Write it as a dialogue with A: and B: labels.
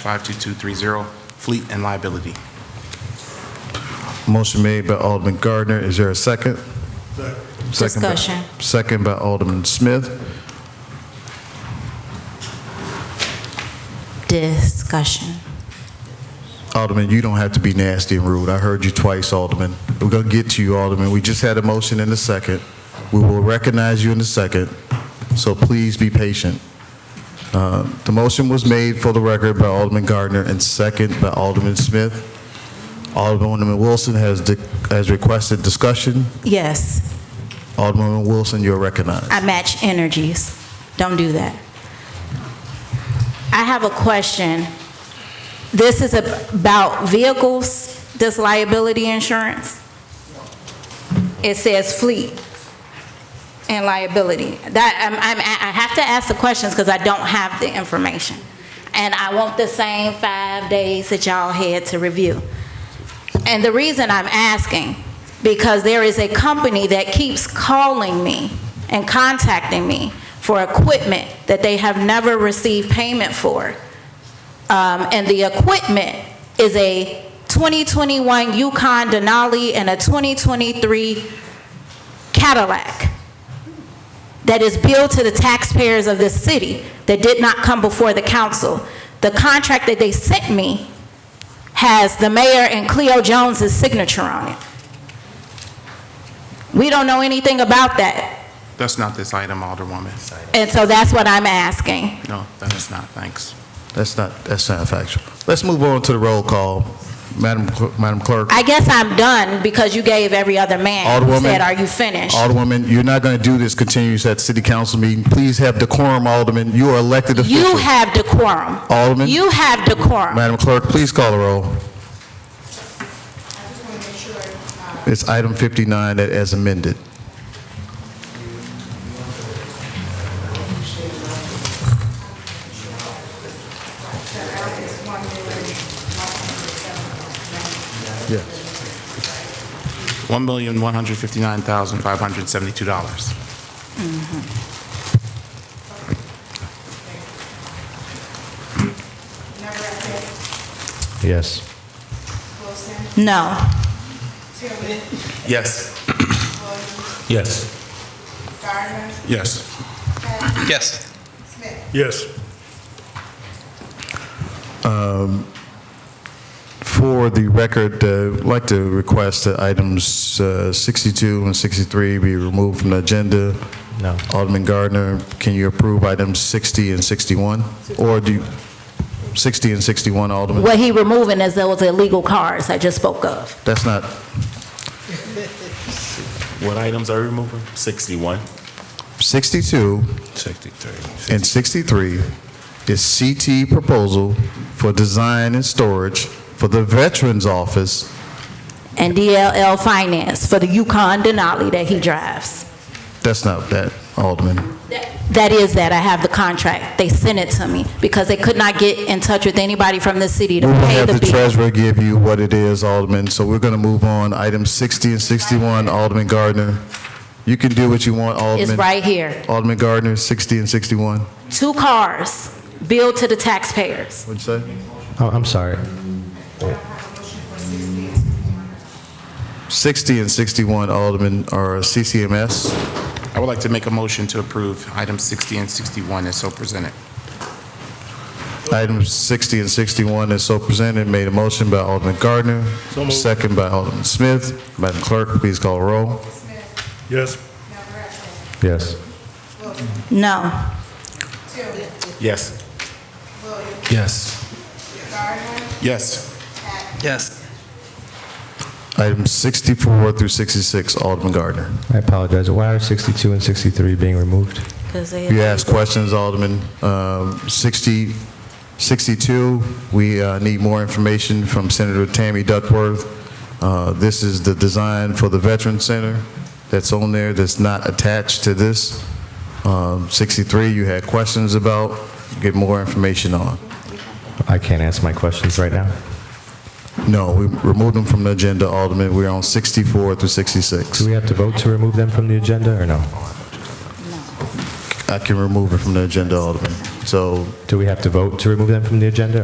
A: 0-52230, fleet and liability.
B: Motion made by Alderman Gardner. Is there a second? Second by-
C: Discussion.
B: Second by Alderman Smith.
C: Discussion.
B: Alderman, you don't have to be nasty and rude. I heard you twice, Alderman. We're going to get to you, Alderman. We just had a motion in a second. We will recognize you in a second, so please be patient. Uh, The motion was made for the record by Alderman Gardner and second by Alderman Smith. Alderman Wilson has de- has requested discussion.
C: Yes,
B: Alderman Wilson, you're recognized.
C: I match energies. Don't do that. I have a question. This is about vehicles, this liability insurance? It says fleet and liability. That, I'm, I'm, I have to ask the questions because I don't have the information. And I want the same five days that y'all had to review. And the reason I'm asking, because there is a company that keeps calling me and contacting me for equipment that they have never received payment for. Um, And the equipment is a 2021 Yukon Denali and a 2023 Cadillac that is billed to the taxpayers of this city that did not come before the council. The contract that they sent me has the mayor and Cleo Jones's signature on it. We don't know anything about that,
A: That's not this item, Alderwoman.
C: and so that's what I'm asking.
A: No, that is not, thanks.
B: That's not, that's not factual. Let's move on to the roll call. Madam Cl- Madam Clerk.
C: I guess I'm done because you gave every other man, you
B: Alderwoman.
C: said, are you finished?
B: Alderwoman, you're not going to do this continuous at city council meeting. Please have decorum, Alderman. You are elected official.
C: You have decorum.
B: Alderman?
C: You have decorum.
B: Madam Clerk, please call the roll. It's item 59 that as amended. Yes.
A: $1,159,572.
B: Yes.
C: No.
A: Yes.
D: Yes.
A: Yes.
D: Yes.
E: Yes.
B: For the record, uh, I'd like to request that items uh, 62 and 63 be removed from the agenda.
D: No.
B: Alderman Gardner, can you approve items 60 and 61? Or do, you- 60 and 61, Alderman?
C: What he removing is those illegal cars I just spoke of.
B: That's not,
F: What items are we removing? 61.
B: 62
D: 63.
B: and 63 is CT proposal for design and storage for the Veterans Office
C: And DLL Finance for the Yukon Denali that he drives.
B: That's not that, Alderman.
C: That is that, I have the contract. They sent it to me because they could not get in touch with anybody from the city to
B: We will
C: pay
B: have
C: the
B: the
C: bill.
B: treasurer give you what it is, Alderman, so we're going to move on. Item 60 and 61, Alderman Gardner. You can do what you want, Alderman.
C: It's right here.
B: Alderman Gardner, 60 and 61.
C: Two cars billed to the taxpayers.
B: What'd you say?
D: Oh, I'm sorry.
B: 60 and 61, Alderman, are CCMS.
A: I would like to make a motion to approve items 60 and 61 as so presented.
B: Items 60 and 61 is so presented, made a motion by Alderman Gardner, second by Alderman Smith. Madam Clerk, please call a roll.
E: Yes.
D: Yes.
C: No.
A: Yes.
D: Yes.
A: Yes.
D: Yes.
B: Items 64 through 66, Alderman Gardner.
D: I apologize. Why are 62 and 63 being removed?
B: You asked questions, Alderman. Um, 60, 62, we uh, need more information from Senator Tammy Duckworth. Uh, This is the design for the Veteran Center that's on there that's not attached to this. Um, 63, you had questions about, get more information on.
D: I can't answer my questions right now.
B: No, we removed them from the agenda, Alderman. We're on 64 through 66.
D: Do we have to vote to remove them from the agenda or no?
B: I can remove it from the agenda, Alderman. So
D: Do we have to vote to remove them from the agenda,